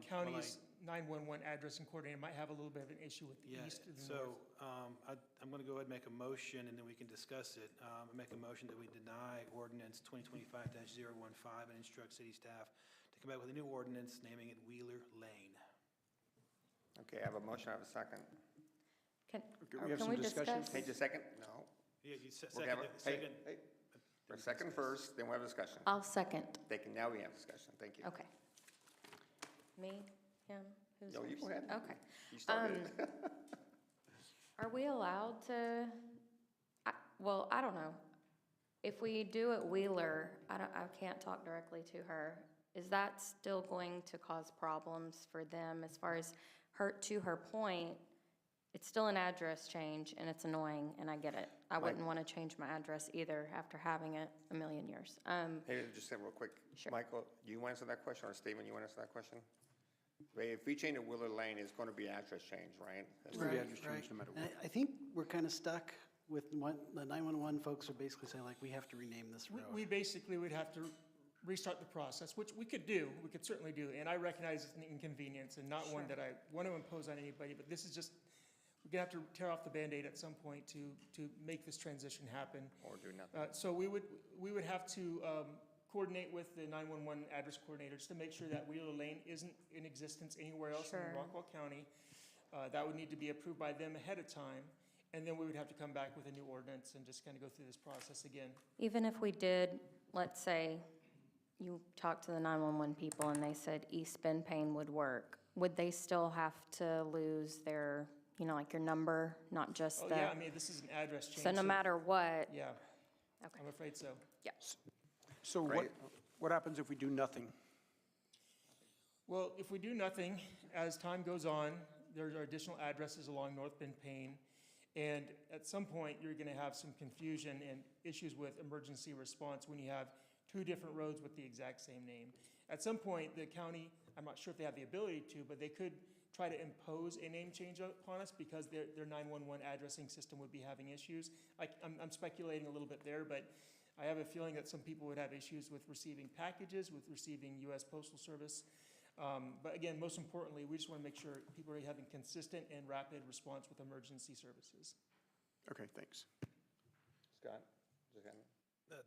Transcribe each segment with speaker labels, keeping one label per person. Speaker 1: county's
Speaker 2: Um, Well,
Speaker 1: 911 address and coordinator might have a little bit of an issue with the
Speaker 2: Yeah,
Speaker 1: east and the north.
Speaker 2: so um, I- I'm going to go ahead and make a motion, and then we can discuss it. Um, I Make a motion that we deny ordinance 2025-015 and instruct city staff to come back with a new ordinance naming it Wheeler Lane.
Speaker 3: Okay, I have a motion, I have a second.
Speaker 4: Can,
Speaker 3: Okay, we have
Speaker 4: can
Speaker 3: some
Speaker 4: we
Speaker 3: discussion.
Speaker 4: discuss?
Speaker 3: Page a second? No.
Speaker 2: Yeah, you se-
Speaker 3: We're gonna
Speaker 2: second,
Speaker 3: have a-
Speaker 2: second.
Speaker 3: hey, hey. For a second first, then we have a discussion.
Speaker 4: I'll second.
Speaker 3: Thank you, now we have discussion, thank you.
Speaker 4: Um, Okay. Me, him, who's
Speaker 3: No, you go
Speaker 4: first?
Speaker 3: ahead.
Speaker 4: Okay.
Speaker 3: You
Speaker 4: um,
Speaker 3: started it.
Speaker 4: Are we allowed to, I, well, I don't know. If we do it Wheeler, I don't, I can't talk directly to her. Is that still going to cause problems for them as far as her, to her point? It's still an address change and it's annoying and I get it. I wouldn't want to change my address either after having it a million years. Um,
Speaker 3: Hey, just say real quick.
Speaker 4: Sure.
Speaker 3: Michael, do you want to answer that question, or Stephen, you want to answer that question? Ray, If we change to Wheeler Lane, it's going to be address change, right? That's-
Speaker 5: Right,
Speaker 6: address change no
Speaker 5: right.
Speaker 6: matter what.
Speaker 5: And I I think we're kind of stuck with what, the 911 folks are basically saying, like, we have to rename this
Speaker 1: We-
Speaker 5: road.
Speaker 1: We basically would have to restart the process, which we could do, we could certainly do. And I recognize it's an inconvenience and not one that I want to impose on anybody, but this is just, we're going to have to tear off the Band-Aid at some point to, to make this transition happen.
Speaker 3: Or do nothing.
Speaker 1: Uh, So we would, we would have to um, coordinate with the 911 address coordinator just to make sure that Wheeler Lane isn't in existence anywhere else in
Speaker 4: Sure.
Speaker 1: Rockwell County. Uh, That would need to be approved by them ahead of time, and then we would have to come back with a new ordinance and just kind of go through this process again.
Speaker 4: Even if we did, let's say, you talked to the 911 people and they said East Bend Payne would work, would they still have to lose their, you know, like your number, not just
Speaker 1: Oh, yeah, I
Speaker 4: the?
Speaker 1: mean, this is an address change.
Speaker 4: So no matter what,
Speaker 1: Yeah,
Speaker 4: okay,
Speaker 1: I'm afraid so.
Speaker 4: yeah.
Speaker 6: So what,
Speaker 3: Right.
Speaker 6: what happens if we do nothing?
Speaker 1: Well, if we do nothing, as time goes on, there are additional addresses along North Bend Payne. And at some point, you're gonna have some confusion and issues with emergency response when you have two different roads with the exact same name. At some point, the county, I'm not sure if they have the ability to, but they could try to impose a name change upon us because their, their 911 addressing system would be having issues. I, I'm, I'm speculating a little bit there, but I have a feeling that some people would have issues with receiving packages, with receiving US Postal Service. Um, But again, most importantly, we just want to make sure people are having consistent and rapid response with emergency services.
Speaker 6: Okay, thanks.
Speaker 3: Scott, just got
Speaker 2: Uh,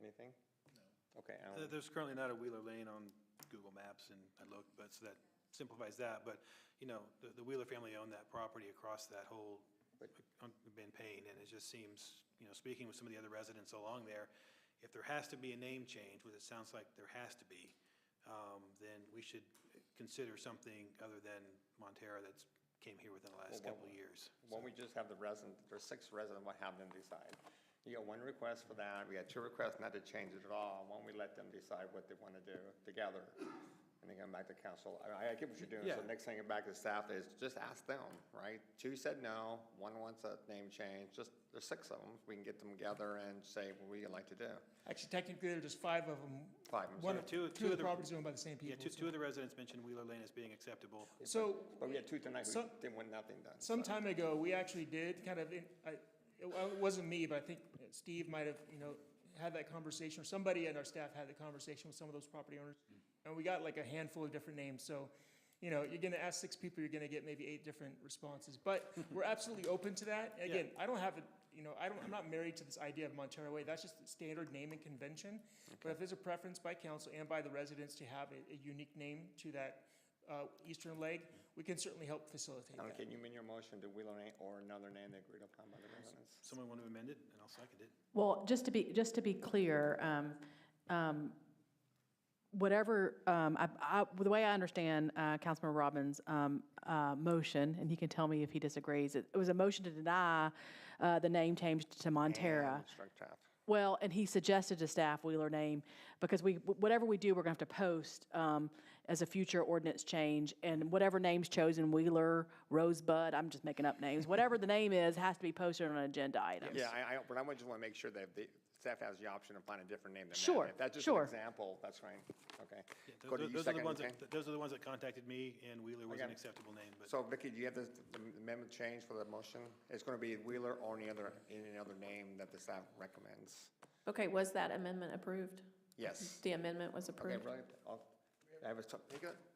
Speaker 3: anything? No. Okay, Alan.
Speaker 2: There- There's currently not a Wheeler Lane on Google Maps, and I looked, but, so that simplifies that. But, you know, the the Wheeler family owned that property across that whole, on Ben Payne, and it just seems, you know, speaking with some of the other residents along there, if there has to be a name change, which it sounds like there has to be, um, then we should consider something other than Montera that's came here within the last
Speaker 3: Well,
Speaker 2: couple of years.
Speaker 3: Why don't we just have the resident, there's six residents, we'll have them decide. You got one request for that, we got two requests not to change it at all, why don't we let them decide what they want to do together? And then come back to council, I, I get what you're doing, so
Speaker 2: Yeah.
Speaker 3: next thing back to staff is just ask them, right? Two said no, one wants a name change, just, there's six of them, we can get them together and say what we'd like to do.
Speaker 1: Actually, technically, there are just five of them.
Speaker 3: Five, I'm
Speaker 1: One
Speaker 3: sorry.
Speaker 1: of,
Speaker 2: Two- two
Speaker 1: two of
Speaker 2: of
Speaker 1: the
Speaker 2: the-
Speaker 1: properties owned by the same
Speaker 2: Yeah,
Speaker 1: people.
Speaker 2: two, two of the residents mentioned Wheeler Lane as being acceptable.
Speaker 1: So
Speaker 3: But we had two tonight who
Speaker 1: Some-
Speaker 3: didn't want nothing done. so-
Speaker 1: some time ago, we actually did kind of, in- I- it wa- it wasn't me, but I think Steve might have, you know, had that conversation, or somebody in our staff had the conversation with some of those property owners. And we got like a handful of different names, so, you know, you're gonna ask six people, you're gonna get maybe eight different responses. But we're absolutely open to that. Again, I don't have, a you know, I don't, I'm not married to this idea of Montero Way, that's just standard naming convention. But if there's a preference by council and by the residents to have a, a unique name to that, uh, eastern leg, we can certainly help facilitate
Speaker 3: Alan,
Speaker 1: that.
Speaker 3: can you amend your motion to Wheeler Lane or another name they agreed upon by the residents?
Speaker 2: Someone want to amend it, and I'll second it.
Speaker 7: Well, just to be, just to be clear, um, um, whatever, um, I, I, the way I understand, uh, Councilmember Robbins', um, uh, motion, and he can tell me if he disagrees, it it was a motion to deny, uh, the name change to Montera.
Speaker 3: And Struck tap.
Speaker 7: Well, and he suggested to staff Wheeler name, because we, whatever we do, we're gonna have to post, um, as a future ordinance change, and whatever name's chosen, Wheeler, Rosebud, I'm just making up names, whatever the name is, has to be posted on an agenda item.
Speaker 3: Yeah, I, I, but I would just want to make sure that the staff has the option of finding a different name than that.
Speaker 7: Sure,
Speaker 3: If that's just an
Speaker 7: sure.
Speaker 3: example, that's fine, okay.
Speaker 2: Those
Speaker 3: Go
Speaker 2: are-
Speaker 3: to you
Speaker 2: those are the
Speaker 3: second,
Speaker 2: ones
Speaker 3: okay?
Speaker 2: that- Those are the ones that contacted me, and Wheeler was
Speaker 3: got
Speaker 2: an
Speaker 3: it.
Speaker 2: acceptable name, but.
Speaker 3: So Vicky, do you have this amendment change for the motion? It's going to be Wheeler or any other, any other name that the staff recommends?
Speaker 8: Okay, was that amendment approved?
Speaker 3: Yes.
Speaker 8: The amendment was
Speaker 3: Okay,
Speaker 8: approved?
Speaker 3: right, I'll, I have a, t- take it,